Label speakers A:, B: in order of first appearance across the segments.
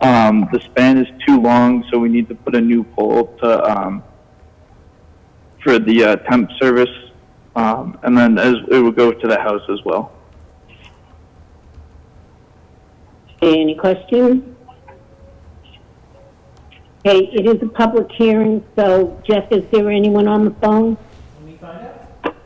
A: Um, the span is too long, so we need to put a new pole to, um, for the uh, temp service. Um, and then as it would go to the house as well.
B: Any questions? Okay, it is a public hearing, so Jeff, is there anyone on the phone?
C: Let me find out.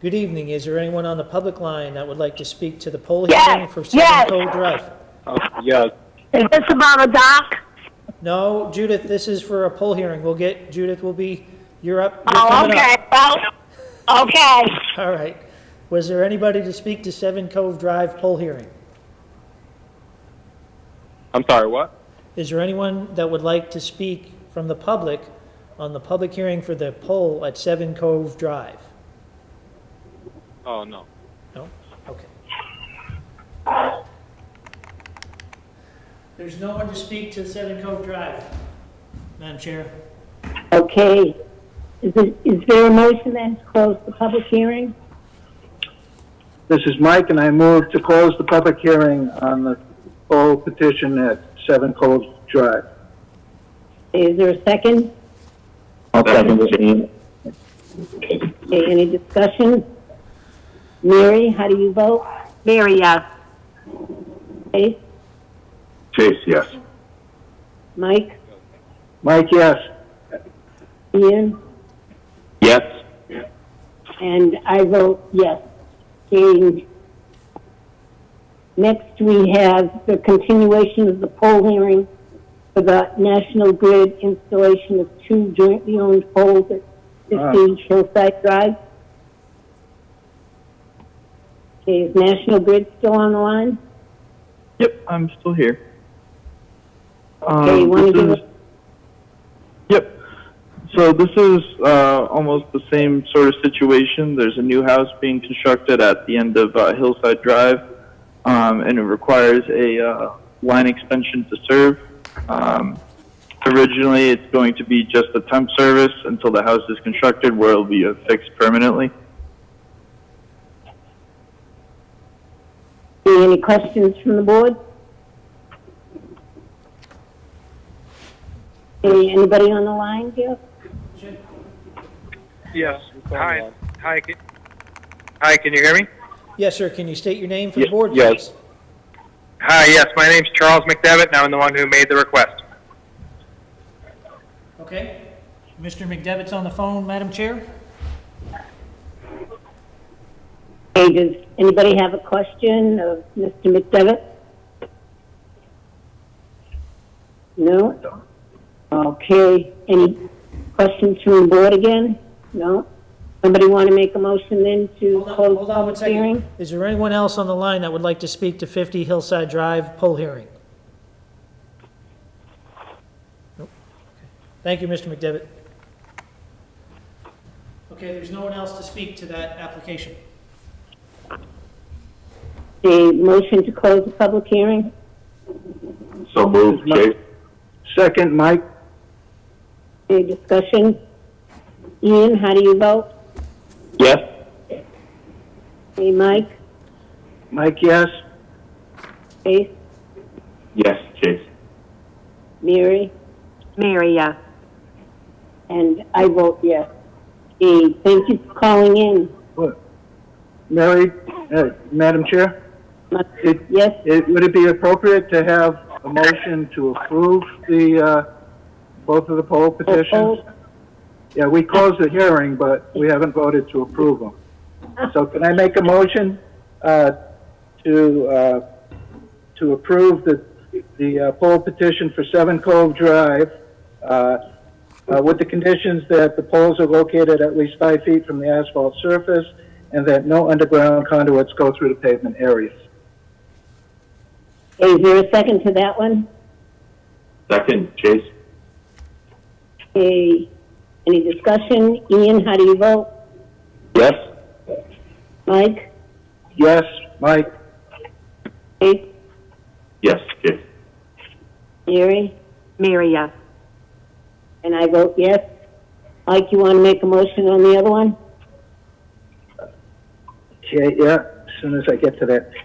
C: Good evening. Is there anyone on the public line that would like to speak to the poll
D: Yes,
C: hearing for Seven
D: yes.
C: Cole Drive?
E: Oh, Yeah,
D: Is this about a dock?
C: No, Judith, this is for a poll hearing. We'll get, Judith will be, you're up. you're
D: Oh,
C: coming up.
D: okay, well, okay.
C: All right. Was there anybody to speak to Seven Cove Drive poll hearing?
E: I'm sorry, what?
C: Is there anyone that would like to speak from the public on the public hearing for the poll at Seven Cove Drive?
E: Oh, no.
C: No? Okay. There's no one to speak to Seven Cove Drive, Madam Chair.
B: Okay, is it, is there a motion then to close the public hearing?
F: This is Mike, and I move to close the public hearing on the full petition at 7 Coles Drive.
B: Is there a second?
A: I'll second it.
B: Okay, any discussion? Mary, how do you vote?
D: Mary, yes.
B: Chase?
A: Chase, yes.
B: Mike?
F: Mike, yes.
B: Ian?
A: Yes.
B: And I vote yes. And next, we have the continuation of the poll hearing for the National Grid installation of two jointly owned poles at 15 Hillside Drive. Okay, is National Grid still on the line?
A: Yep, I'm still here. Um,
B: Okay, you want to
A: this
B: give
A: is-
B: us,
A: Yep. So this is uh, almost the same sort of situation. There's a new house being constructed at the end of uh, Hillside Drive, um, and it requires a uh, line extension to serve. Um, originally, it's going to be just a temp service until the house is constructed, where it'll be affixed permanently.
B: any questions from the board? Okay, anybody on the line here?
G: Yes. Hi.
E: on.
G: Hi. Can, hi. Can you hear me?
C: Yes, sir, can you state your name for the
E: Ye-
C: board,
E: yes.
C: please?
G: Hi. Yes. My name's Charles McDevitt, and I'm the one who made the request.
C: Okay. Mr. McDevitt's on the phone, Madam Chair?
B: Okay, does anybody have a question of Mr. McDevitt? No? Okay, any questions from the board again? No? Somebody want to make a motion then to
C: Hold on-
B: close
C: hold
B: the
C: on one
B: public
C: second.
B: hearing?
C: Is there anyone else on the line that would like to speak to 50 Hillside Drive poll hearing? Nope. Okay. Thank you, Mr. McDevitt. Okay, there's no one else to speak to that application.
B: The motion to close the public hearing?
A: So move,
F: Chase. Second, Mike?
B: Any discussion? Ian, how do you vote?
A: Yes.
B: Hey, Mike?
F: Mike, yes.
B: Ace?
A: Yes, Chase.
B: Mary?
D: Mary, yes.
B: And I vote yes. Okay, thank you for calling in.
F: What? Mary, uh, Madam Chair, it,
B: Yes?
F: it, would it be appropriate to have a motion to approve the, uh, both of the poll petitions?
B: Oh,
F: Yeah, we closed the hearing, but we haven't voted to approve them. So can I make a motion uh, to, uh, to approve the, the uh, poll petition for Seven Cove Drive uh, uh, with the conditions that the poles are located at least five feet from the asphalt surface and that no underground conduits go through the pavement areas?
B: Is there a second to that one?
A: Second, Chase.
B: Okay, any discussion? Ian, how do you vote?
A: Yes.
B: Mike?
F: Yes, Mike?
B: Ace?
A: Yes, Chase.
B: Mary?
D: Mary, yes.
B: And I vote yes. Mike, you want to make a motion on the other one?
F: Okay, yeah, as soon as I get to that.